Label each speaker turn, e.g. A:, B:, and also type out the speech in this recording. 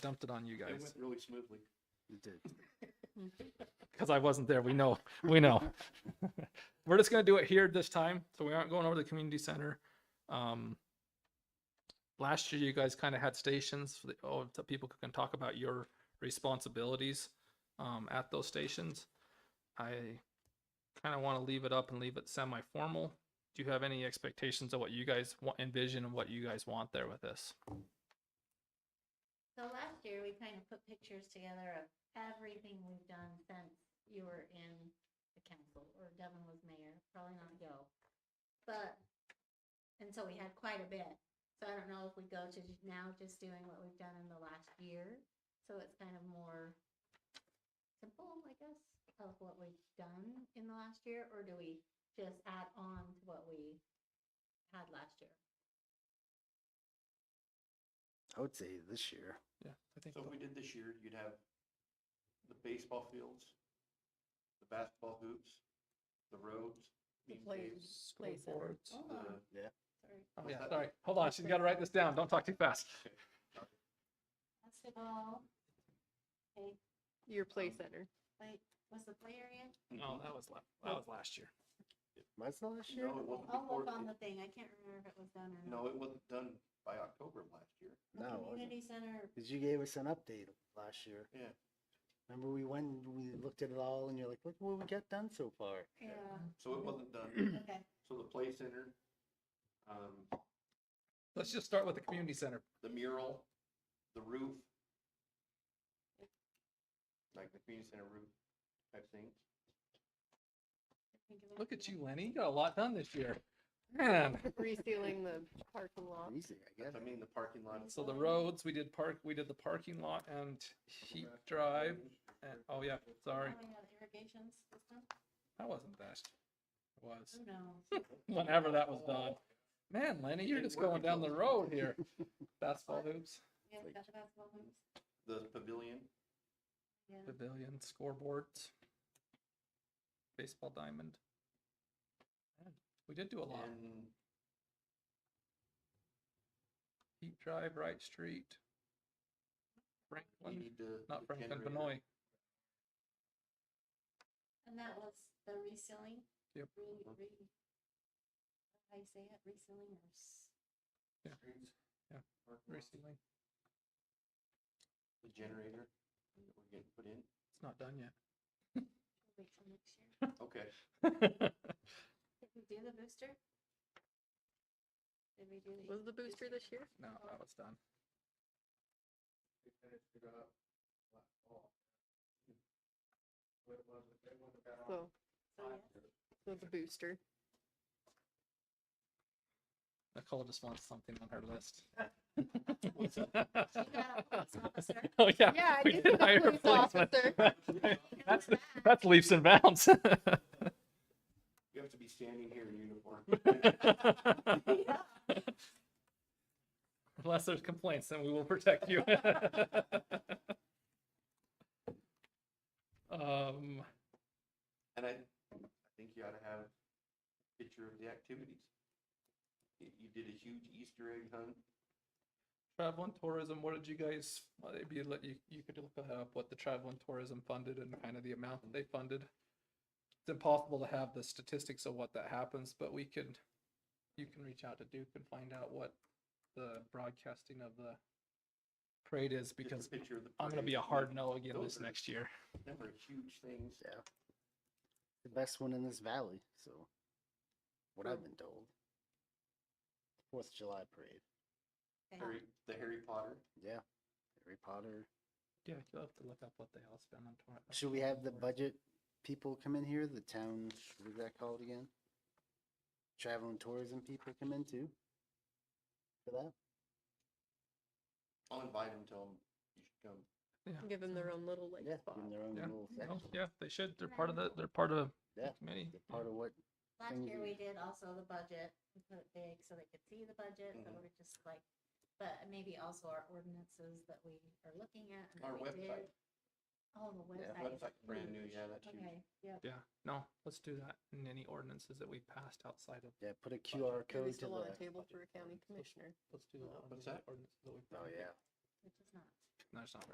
A: dumped it on you
B: It
A: guys
B: went really smoothly.
C: It did.
A: because I wasn't there. We know, we know. We're just gonna do it here this time, so we aren't going over to the community center. Um, last year, you guys kind of had stations, for the- oh, so people can talk about your responsibilities um, at those stations. I kind of want to leave it up and leave it semi-formal. Do you have any expectations of what you guys want, envision, and what you guys want there with this?
D: So last year, we kind of put pictures together of everything we've done since you were in the council or Devin was mayor, probably not Joe. But, and so we had quite a bit. So I don't know if we go to j- now just doing what we've done in the last year. So it's kind of more simple, I guess, of what we've done in the last year, or do we just add on to what we had last year?
C: I would say this year.
A: Yeah, I think
B: So if we did this year, you'd have the baseball fields, the basketball hoops, the roads,
E: The
B: these days,
E: plays, play center.
D: Hold
B: the, mm-hmm.
D: on,
E: Sorry.
A: Oh,
B: what's
A: yeah,
B: that?
A: sorry. Hold on, she's got to write this down. Don't talk too fast.
D: basketball. Okay,
E: Your play
C: Um,
E: center.
D: wait, was the play area?
A: No, Oh, that was last, that was last year.
C: Mine's not this year.
B: No, it wasn't
D: I'll
B: before,
D: look on the
B: it-
D: thing, I can't remember if it was done or not.
B: no, it wasn't done by October of last year.
D: The
C: No,
D: Community center,
C: because you gave us an update last year.
B: Yeah.
C: Remember we went and we looked at it all, and you're like, "Look what we got done so far."
D: yeah,
B: So it wasn't done.
D: okay,
B: So the play center, um,
A: Let's just start with the community center.
B: the mural, the roof, like the community center roof type thing.
D: think of it.
A: Look at you, Lenny. You got a lot done this year. Man.
E: Resealing the parking lot.
C: Easy, I guess.
B: I mean, the parking lot.
A: So the roads, we did park, we did the parking lot and Heat Drive. And, oh yeah, sorry,
D: Oh, we have irrigation system,
A: that wasn't that. It was
D: who knows?
A: whenever that was done. Man, Lenny, you're just going down the road here. Basketball hoops,
D: We have got the basketball hoops,
B: The pavilion,
D: yeah.
A: pavilion, scoreboards, baseball diamond. Man, We did do a lot.
B: and
A: Heat Drive, Wright Street.
B: you
A: Franklin,
B: need the.
A: not
B: the
A: Franklin,
B: generator.
A: Benoit.
D: And that was the resealing?
A: Yep.
D: Re, re. How you say it, resealing or s-
A: Yeah.
B: Streets,
A: Yeah.
B: parking lot,
A: Recently.
B: The generator that we're getting put in.
A: It's not done yet.
D: wait till next year?
B: Okay,
D: Did we do the booster? Did we do the?
E: Was the booster this year?
A: No, that was done.
E: So,
D: So, Oh, yeah.
E: so the booster.
A: Nicole just wants something on her list.
D: You got a police officer.
A: Oh, yeah.
E: Yeah, I
A: we
E: guess
A: did
E: it's a
A: hire a
E: police
A: policeman. That's, that's leaps and bounds.
B: you have to be standing here in uniform.
A: Unless there's complaints, then we will protect you. Um,
B: And I, I think you ought to have a picture of the activities. You you did a huge Easter egg hunt.
A: travel and tourism, what did you guys, well, it'd be, let you, you could look that up, what the travel and tourism funded and kind of the amount that they funded. It's impossible to have the statistics of what that happens, but we could, you can reach out to Duke and find out what the broadcasting of the parade is,
B: just a
A: because
B: picture of the
A: I'm gonna be
B: parade.
A: a hard no again
B: Those
A: this
B: are-
A: next year.
B: Them are huge things.
C: Yeah. The best one in this valley, so what I've been told. Fourth of July parade.
D: Okay.
B: Harry, the Harry Potter.
C: Yeah. Harry Potter.
A: Yeah, you'll have to look up what they all spend on tour. on
C: Should we have the
A: tourism.
C: budget people come in here? The town, what is that called again? Travel and tourism people come in too? For that?
B: I'll invite them, tell them you should come.
A: Yeah.
E: Give them their own little like
C: Yeah,
E: spot.
C: give 'em their own
A: Yeah,
C: little
A: No,
C: section.
A: Oh, yeah, they should, they're part of the, they're part of the
C: Yeah,
A: committee.
C: They're part of what,
D: Last
C: things
D: year
C: we-
D: we did also the budget, we put it big so they could see the budget, so
B: Mhm.
D: we're just like, but maybe also our ordinances that we are looking at. and that
B: Our
D: we
B: website.
D: did. Oh, the
C: Yeah.
D: website. is
B: Website's brand new,
D: huge.
B: yeah, that's huge.
D: Okay, yep.
A: Yeah, no, let's do that in any ordinances that we passed outside of
C: yeah, put a QR
E: Maybe
C: code to
E: still on
C: the,
E: a table for a county commissioner.
A: Let's do
B: Uh,
A: that.
B: what's
A: under the
B: that?
A: ordinance that we
C: oh
A: found.
C: yeah.
D: Which is not.
A: No, it's not right.